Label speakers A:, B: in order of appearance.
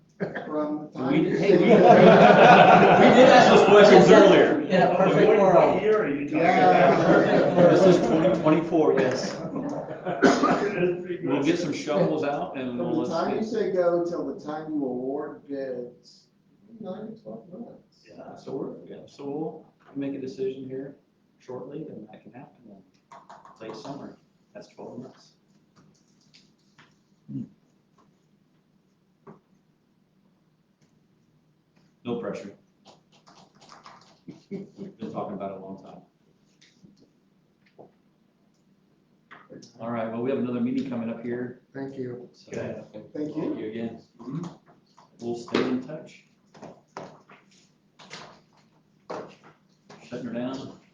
A: from.
B: We did-
C: Hey, we- we did
B: ask those questions earlier.
C: In a perfect world.
D: Year are you talking
A: Yeah.
D: about?
B: This is twenty twenty-four, yes. We'll
D: We'll
B: get some shovels out
A: From
B: and we'll
A: the time you
B: let's.
A: say go till the time you award bids, nine to twelve months.
B: Yeah, so we're, yeah, so we'll make a decision here shortly and that can happen in late summer. That's twelve months. No pressure. Been talking about it a long time. All right, well, we have another meeting coming up here.
A: Thank you.
B: so-
D: Okay.
A: Thank you.
B: Thank you again. We'll stay in touch. Shutting her down.